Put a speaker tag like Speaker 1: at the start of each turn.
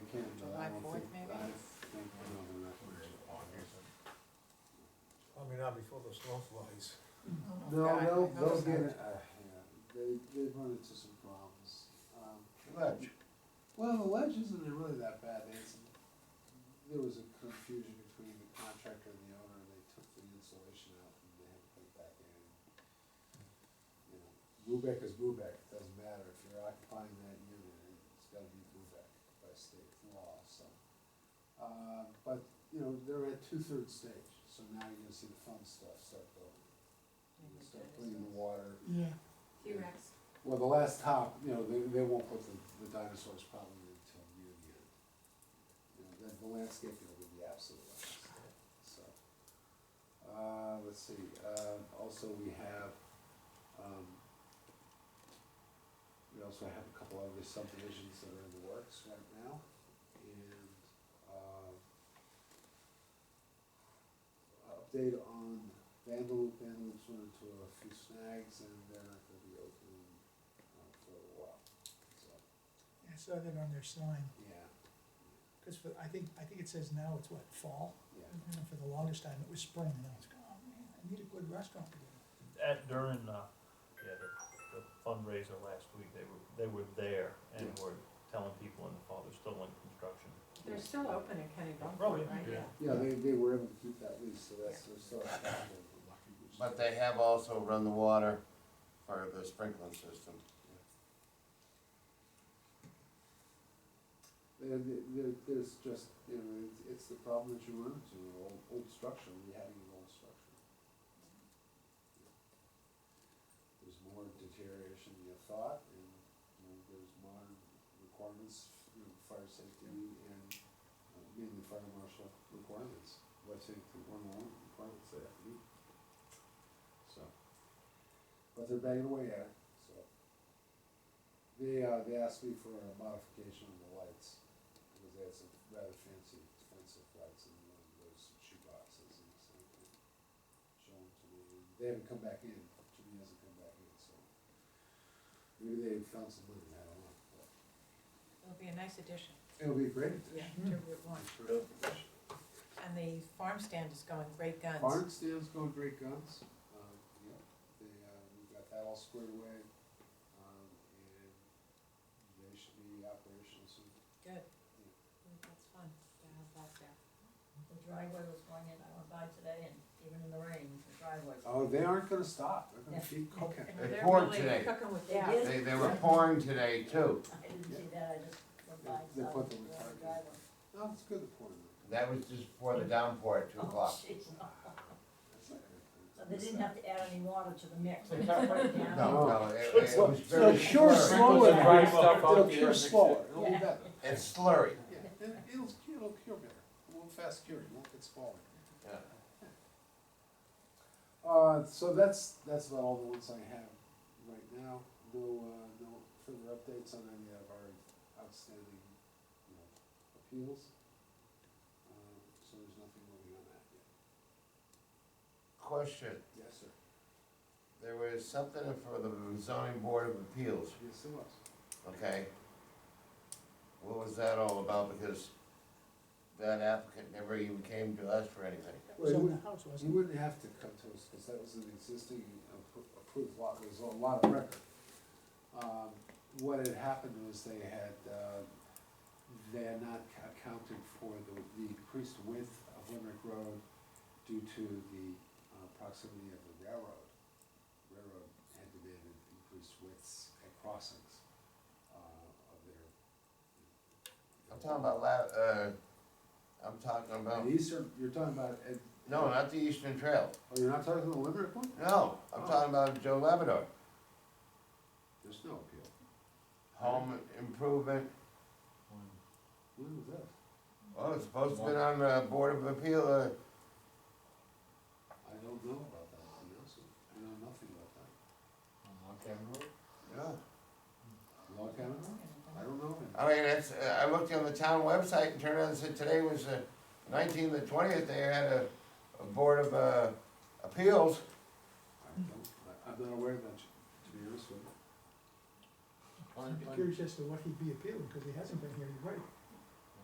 Speaker 1: uh,
Speaker 2: before the snow flies.
Speaker 1: No, they'll,
Speaker 3: God, I
Speaker 1: they'll
Speaker 3: noticed
Speaker 1: get
Speaker 3: that.
Speaker 1: it, uh, yeah, they, they've run into some problems. Um,
Speaker 4: Ledge.
Speaker 1: Well, the ledge isn't really that bad, it's, there was a confusion between the contractor and the owner, and they took the insulation out and they had to put it back in. You know, Lubeck is Lubeck, it doesn't matter, if you're occupying that unit, it's gotta be Lubeck by state law, so. Uh, but, you know, they're at two-thirds stage, so now you're gonna see the fun stuff start going. You're gonna start putting in the water,
Speaker 3: Yeah.
Speaker 5: T-Rex.
Speaker 1: well, the last top, you know, they, they won't put the, the dinosaurs probably until near the end. You know, then the landscaping will be the absolute last, so. Uh, let's see, uh, also we have, um, we also have a couple other subdivisions that are in the works right now, and, uh, update on Vandal, Vandal's went into a few snags, and they're not gonna be open, uh, for a while, so,
Speaker 3: I saw that on their sign,
Speaker 1: yeah,
Speaker 3: cause for, I think, I think it says now it's what, fall?
Speaker 1: yeah.
Speaker 3: And for the longest time, it was spring, and I was going, oh man, I need a good restaurant to go to.
Speaker 6: At, during, uh, yeah, the, the fundraiser last week, they were, they were there and were telling people in the fall, they're still in construction.
Speaker 5: They're still open at Kenny
Speaker 6: Oh,
Speaker 5: Bunkport,
Speaker 6: yeah.
Speaker 5: right?
Speaker 2: Yeah.
Speaker 1: Yeah, they, they were able to keep that lease, so that's, they're still.
Speaker 4: But they have also run the water for the sprinkling system.
Speaker 1: There, there, there's just, you know, it's, it's the problem that you run into, an old, old structure, we having an old structure. There's more deterioration than you thought, and, you know, there's modern requirements, you know, fire safety and, uh, mainly fire marshal requirements, life safety one one requirements that have to meet. So, but they're banging away at it, so. They, uh, they asked me for a modification of the lights, because they had some rather fancy, expensive lights, and one of those shoe boxes, and so I could show them to me, and they haven't come back in, Jimmy hasn't come back in, so. Maybe they found some money, I don't know, but
Speaker 5: It'll be a nice addition,
Speaker 1: it'll be great.
Speaker 5: yeah, to
Speaker 1: Hmm.
Speaker 5: Route One. And the farm stand is going great guns.
Speaker 1: Barn stands going great guns, um, yeah, they, uh, we got that all squared away, um, and they should be operational soon.
Speaker 5: Good. That's fun to have that there.
Speaker 7: The driveway was going in, I went by today and even in the rain, the driveway.
Speaker 1: Oh, they aren't gonna stop, they're gonna
Speaker 7: Yeah.
Speaker 1: keep cooking.
Speaker 5: And
Speaker 4: They
Speaker 5: they're
Speaker 4: poured
Speaker 5: really
Speaker 4: today.
Speaker 5: Cooking with
Speaker 7: They
Speaker 5: gas.
Speaker 7: did.
Speaker 4: They, they were pouring today too.
Speaker 7: I didn't see that, I just went by.
Speaker 1: They- they
Speaker 7: saw
Speaker 1: put
Speaker 7: the
Speaker 1: them in parking.
Speaker 7: driveway.
Speaker 1: No, Oh, it's good to pour them.
Speaker 4: That was just before the downpour at two
Speaker 7: Oh,
Speaker 4: o'clock.
Speaker 7: jeez.
Speaker 1: That's not good.
Speaker 7: So they didn't have to add any water to the mix.
Speaker 8: They got right
Speaker 4: No,
Speaker 8: down.
Speaker 4: no, it, it was very
Speaker 1: It'll cure
Speaker 4: slurry.
Speaker 1: slower,
Speaker 8: Sprinkles dry stuff
Speaker 1: it'll
Speaker 8: out there,
Speaker 1: cure
Speaker 8: mix it.
Speaker 1: slower, it'll be
Speaker 7: Yeah.
Speaker 1: better.
Speaker 4: It's slurry.
Speaker 1: Yeah, it- it'll, it'll cure better, it won't fast cure, it won't get smaller.
Speaker 4: Yeah.
Speaker 1: Uh, so that's, that's about all the ones I have right now, no, uh, no further updates on any of our outstanding, you know, appeals. Um, So there's nothing moving on that yet.
Speaker 4: Question,
Speaker 1: Yes, sir.
Speaker 4: there was something for the zoning board of appeals,
Speaker 1: Yes, there was.
Speaker 4: okay? What was that all about? Because that applicant never even came to us for anything.
Speaker 3: That was
Speaker 1: Wait,
Speaker 3: on
Speaker 1: who-
Speaker 3: the house, wasn't it?
Speaker 1: You wouldn't have to come to us, because that was an existing appro- approved lot, it was a lot of record. Um, What had happened was they had, uh, they had not ca- accounted for the, the increased width of Limerick Road due to the uh, proximity of the railroad. Railroad had demanded increased widths at crossings uh, of their.
Speaker 4: I'm talking about la- uh, I'm talking about,
Speaker 1: The eastern, you're talking about, Ed-
Speaker 4: no, not the Eastern Trail.
Speaker 1: oh, you're not talking about the Limerick one?
Speaker 4: No, I'm talking about Joe Labrador,
Speaker 1: There's no appeal.
Speaker 4: home improvement,
Speaker 1: When was that?
Speaker 4: oh, it's supposed to be on the Board of Appeal, uh,
Speaker 1: I don't know about that, to be honest with you. I know nothing about that.
Speaker 4: yeah.
Speaker 1: Log cabin? I don't know. him.
Speaker 4: I mean, it's, uh, I looked on the town website and turned around and said today was the nineteenth, the twentieth, they had a, a Board of, uh, Appeals.
Speaker 1: I don't, I- I'm not aware of that, to be honest with you.
Speaker 3: I'm curious as to what he'd be appealing, because he hasn't been here, you're right.